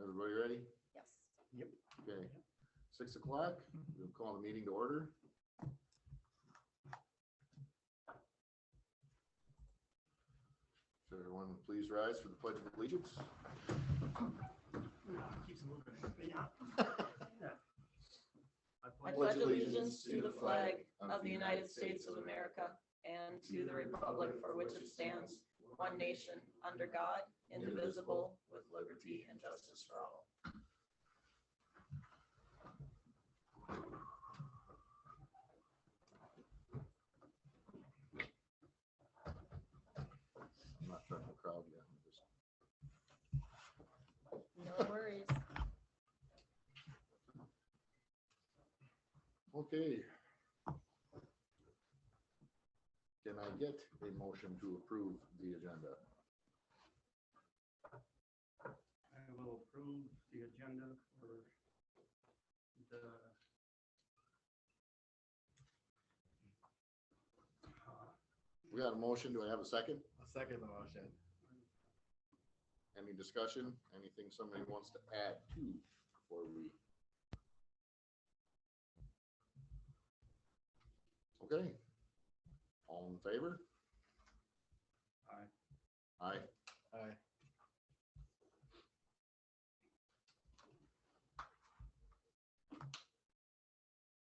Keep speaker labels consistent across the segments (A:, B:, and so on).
A: Everybody ready?
B: Yes.
A: Okay, six o'clock,
B: Mm-hmm.
A: we'll call the meeting to order. So everyone, please rise for the pledge of allegiance.
C: Keeps moving. Yeah.
B: I pledge allegiance to the flag of the United States of America and to the republic for which it stands, one nation, under God, indivisible, with liberty and justice for all.
A: I'm not trying to crowd you. I'm just-
B: No worries.
A: Okay. Can I get a motion to approve the agenda?
C: I will approve the agenda for the uh,
A: We got a motion, do I have a second?
D: I'll second the motion.
A: Any discussion, anything somebody wants to add to before we? Okay. All in favor?
C: Aye.
A: Aye.
D: Aye.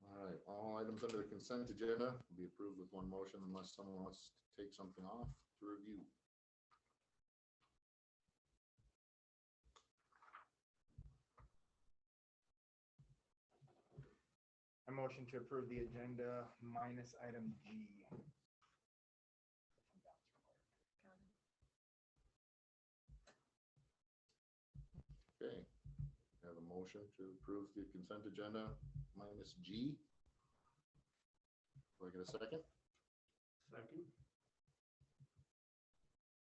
A: All right, all items under the consent agenda will be approved with one motion unless someone wants to take something off to review.
D: I motion to approve the agenda minus item G.
A: Okay. Have a motion to approve the consent agenda minus G. Do I get a second?
C: second.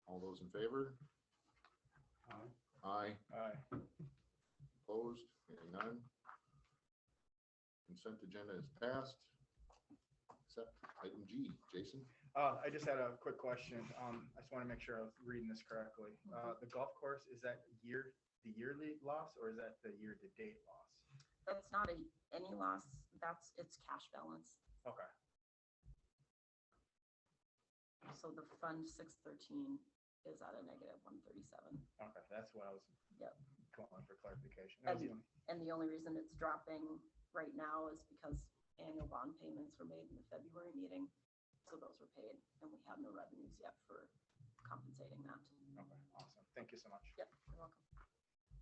A: All those in favor?
C: Aye.
A: Aye.
D: Aye.
A: Opposed? Hearing none. Consent agenda is passed. Except item G. Jason?
D: Uh, I just had a quick question. Um, I just want to make sure I was reading this correctly. Uh, the golf course, is that year, the yearly loss or is that the year-to-date loss?
B: That's not a, any loss, that's its cash balance.
D: Okay,
B: So the fund six thirteen is at a negative one thirty-seven.
D: okay, that's what I was
B: Yep.
D: going for clarification. That was the only-
B: And the only reason it's dropping right now is because annual bond payments were made in the February meeting. So those were paid and we have no revenues yet for compensating that.
D: Okay, awesome. Thank you so much.
B: Yep, you're welcome.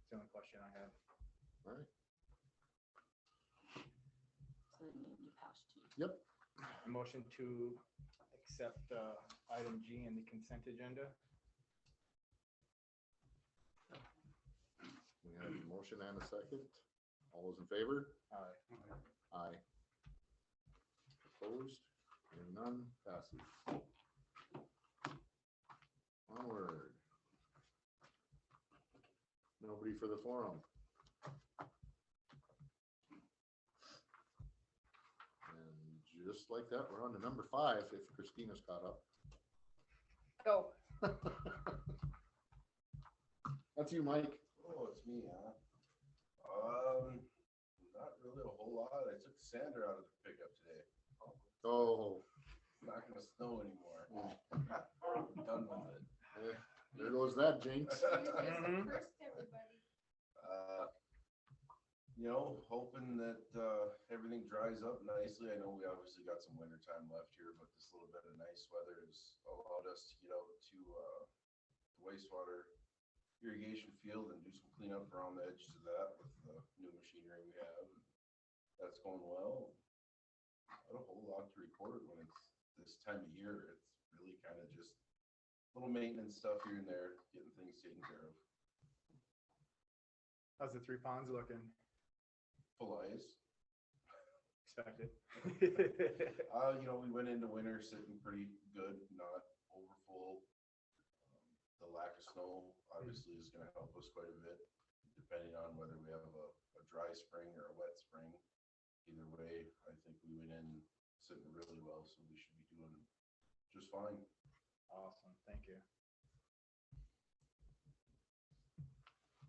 D: It's the only question I had.
A: All right.
B: So then you need to pass to you.
A: Yep.
D: A Motion to accept, uh, item G in the consent agenda.
A: We have a motion and a second. All those in favor?
D: Aye.
C: Aye.
A: Aye. Opposed? Hearing none. Passes. Onward. Nobody for the forum. And just like that, we're on to number five, if Christina's caught up.
B: Go.
A: That's you, Mike.
E: Oh, it's me, huh? Um, not really a whole lot. I took the sander out of the pickup today.
A: Oh,
E: It's not gonna snow anymore. I'm Done with it.
A: eh, there goes that jinx.
C: Mhm.
E: Uh, You know, hoping that, uh, everything dries up nicely. I know we obviously got some winter time left here, but this little bit of nice weather has allowed us to get out to, uh, the wastewater irrigation field and do some cleanup around the edges of that with the new machinery we have. That's going well. Not a whole lot to report when it's this time of year. It's really kind of just little maintenance stuff here and there, getting things taken care of.
D: How's the three ponds looking?
E: Full ice.
D: Expected.
E: Uh, you know, we went into winter sitting pretty good, not over full. Um, The lack of snow obviously is gonna help us quite a bit, depending on whether we have a, a dry spring or a wet spring. Either way, I think we went in sitting really well, so we should be doing just fine.
D: Awesome, thank you.